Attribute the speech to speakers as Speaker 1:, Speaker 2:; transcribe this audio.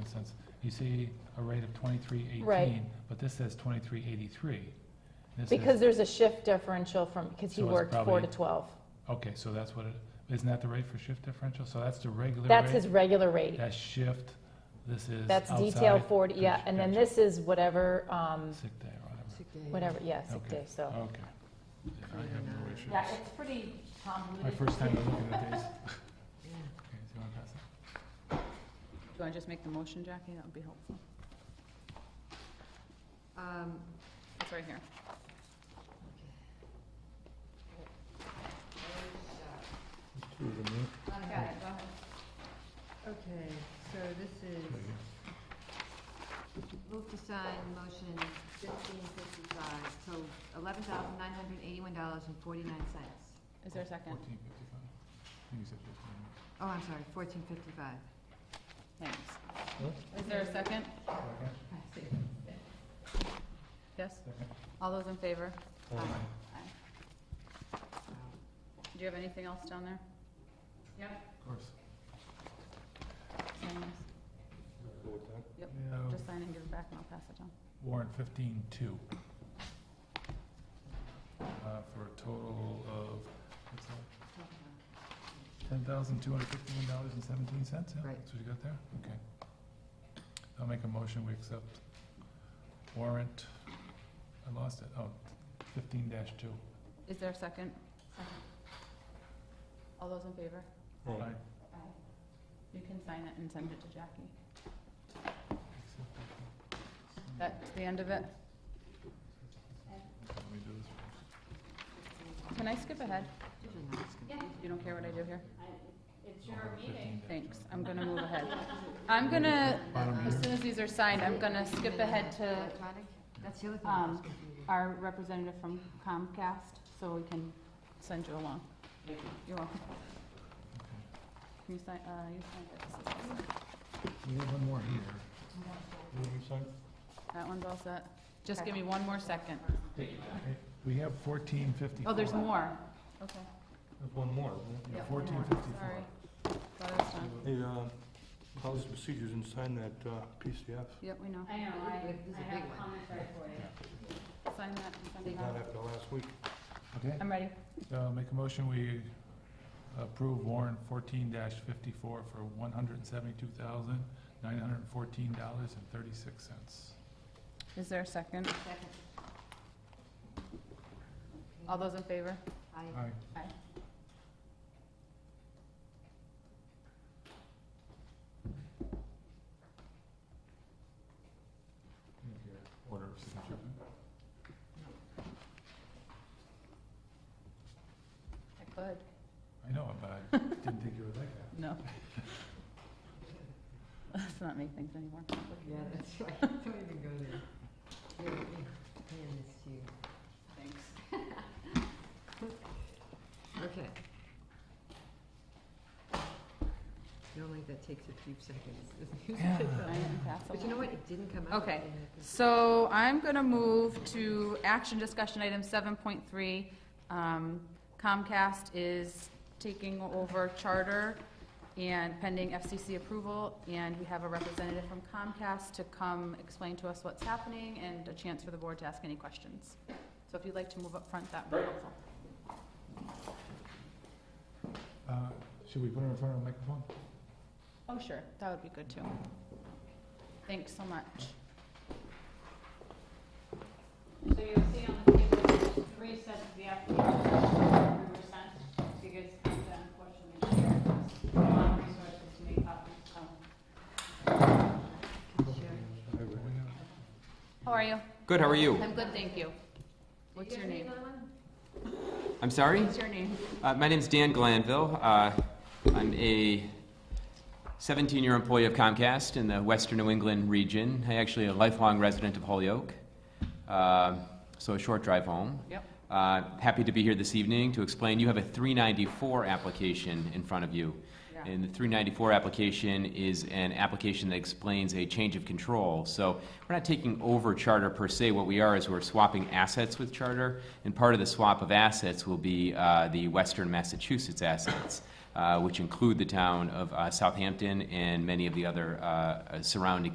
Speaker 1: instance, you see a rate of twenty-three
Speaker 2: Right.
Speaker 1: eighteen, but this says twenty-three eighty-three. This is-
Speaker 2: Because there's a shift differential from, because he
Speaker 1: So it's
Speaker 2: worked four to
Speaker 1: probably-
Speaker 2: 12.
Speaker 1: Okay, so that's what it, isn't that the rate for shift differential? So that's the regular
Speaker 2: That's
Speaker 1: rate,
Speaker 2: his regular rate.
Speaker 1: That's shift, this is
Speaker 2: That's detail
Speaker 1: outside,
Speaker 2: 40, yeah,
Speaker 1: Gotcha,
Speaker 2: and then
Speaker 1: gotcha.
Speaker 2: this is whatever, um,
Speaker 1: Sick day or whatever.
Speaker 3: Sick day.
Speaker 2: whatever, yeah, sick
Speaker 1: Okay.
Speaker 2: day, so.
Speaker 1: Okay. I have no issue.
Speaker 2: Yeah, it's pretty convoluted.
Speaker 1: My first time looking at these.
Speaker 3: Yeah.
Speaker 1: Okay, so you wanna pass it?
Speaker 4: Do you want to just make the motion, Jackie? That would be helpful.
Speaker 3: Um,
Speaker 4: It's right here.
Speaker 3: Okay,
Speaker 4: go ahead.
Speaker 3: Okay, so this is, move to sign motion fifteen fifty-five, so eleven thousand nine hundred eighty-one dollars and forty-nine cents.
Speaker 4: Is there a second?
Speaker 1: Fourteen fifty-five. I think you said fifteen.
Speaker 3: Oh, I'm sorry, fourteen fifty-five.
Speaker 4: Thanks. Is there a second?
Speaker 1: Okay,
Speaker 4: Yes?
Speaker 1: second.
Speaker 4: All those in favor?
Speaker 1: Aye.
Speaker 4: Do you have anything else down there? Yep.
Speaker 1: Of course.
Speaker 4: Sign this. Yep.
Speaker 1: Yeah,
Speaker 4: Just sign it and give it back, and I'll pass it down.
Speaker 1: Warrant fifteen two. Uh, for a total of, what's that, ten thousand two hundred fifty-one dollars and seventeen cents, yeah?
Speaker 3: Right.
Speaker 1: That's what you got there, okay. I'll make a motion, we accept warrant, I lost it, oh, fifteen dash two.
Speaker 4: Is there a second? All those in favor?
Speaker 1: Aye.
Speaker 4: Aye. You can sign it and send it to Jackie.
Speaker 1: Accept it.
Speaker 4: That's the end of it.
Speaker 1: Let me do this first.
Speaker 4: Can I skip ahead?
Speaker 3: Yeah.
Speaker 4: You don't care what I do here?
Speaker 1: Fifteen dash
Speaker 4: Thanks,
Speaker 1: two.
Speaker 4: I'm gonna move ahead. I'm gonna, as soon as these are signed, I'm gonna skip ahead to
Speaker 3: Electronic? That's the other thing.
Speaker 4: um, our representative from Comcast, so we can send you along. You're welcome. Can you sign, uh, you sign this?
Speaker 1: We have one more here.
Speaker 4: That one's all set. Just give me one more second.
Speaker 1: Okay, We have fourteen fifty-four.
Speaker 4: Oh, there's more. Okay,
Speaker 5: There's one more,
Speaker 1: Yeah,
Speaker 4: Yep, one
Speaker 1: fourteen
Speaker 4: more.
Speaker 1: fifty-four.
Speaker 4: sorry. Thought I was done.
Speaker 5: isn't it? Hey, uh, how's the procedures and sign that uh, PCF?
Speaker 4: Yep, we know.
Speaker 6: I know, I,
Speaker 3: This is a
Speaker 6: I have
Speaker 3: big one.
Speaker 6: commentary for you.
Speaker 4: Sign that and send it
Speaker 5: Not
Speaker 4: out.
Speaker 5: after last week.
Speaker 1: Okay,
Speaker 4: I'm ready.
Speaker 1: so Uh, make a motion, we approve warrant fourteen fifty-four for one hundred and seventy-two thousand, nine hundred and fourteen dollars and thirty-six cents.
Speaker 4: Is there a second?
Speaker 3: Second.
Speaker 4: All those in favor?
Speaker 3: I,
Speaker 1: Aye. Order of signature.
Speaker 4: I could.
Speaker 1: I know, but I didn't think you were like that.
Speaker 4: No. Let's not make things any more
Speaker 3: yeah,
Speaker 4: complicated.
Speaker 3: that's right, don't even go there. Here, let me hand this to you.
Speaker 4: Thanks.
Speaker 3: Okay. Normally that takes a few seconds.
Speaker 4: Sign it and pass
Speaker 3: But you
Speaker 4: along.
Speaker 3: know what, it didn't come out.
Speaker 4: Okay.
Speaker 3: in the-
Speaker 4: So I'm going to move to action discussion item 7.3. Um, Comcast is taking over charter and pending FCC approval, and we have a representative from Comcast to come explain to us what's happening and a chance for the board to ask any questions. So if you'd like to move up front, that would be helpful.
Speaker 1: Uh, Should we put her in front of the microphone?
Speaker 4: Oh, sure, that would be good too. Thanks so much.
Speaker 6: So you'll see on the table, there's three sets of the application we were sent, because Kenta unfortunately shared us a lot of resources to make copies, so.
Speaker 4: How are you?
Speaker 7: Good, how are you?
Speaker 4: I'm good, thank you. What's your name?
Speaker 7: I'm sorry?
Speaker 4: What's your name?
Speaker 7: Uh, my name's Dan Glanville. Uh, I'm a 17 year employee of Comcast in the Western New England region. I'm actually a lifelong resident of Holyoke, uh, so a short drive home.
Speaker 4: Yep.
Speaker 7: Uh, happy to be here this evening to explain. You have a 394 application in front of you.
Speaker 4: Yeah.
Speaker 7: And the 394 application is an application that explains a change of control. So we're not taking over Charter per se. What we are is we're swapping assets with Charter, and part of the swap of assets will be uh, the Western Massachusetts assets. uh, which include the town of uh, Southampton and many of the other uh, surrounding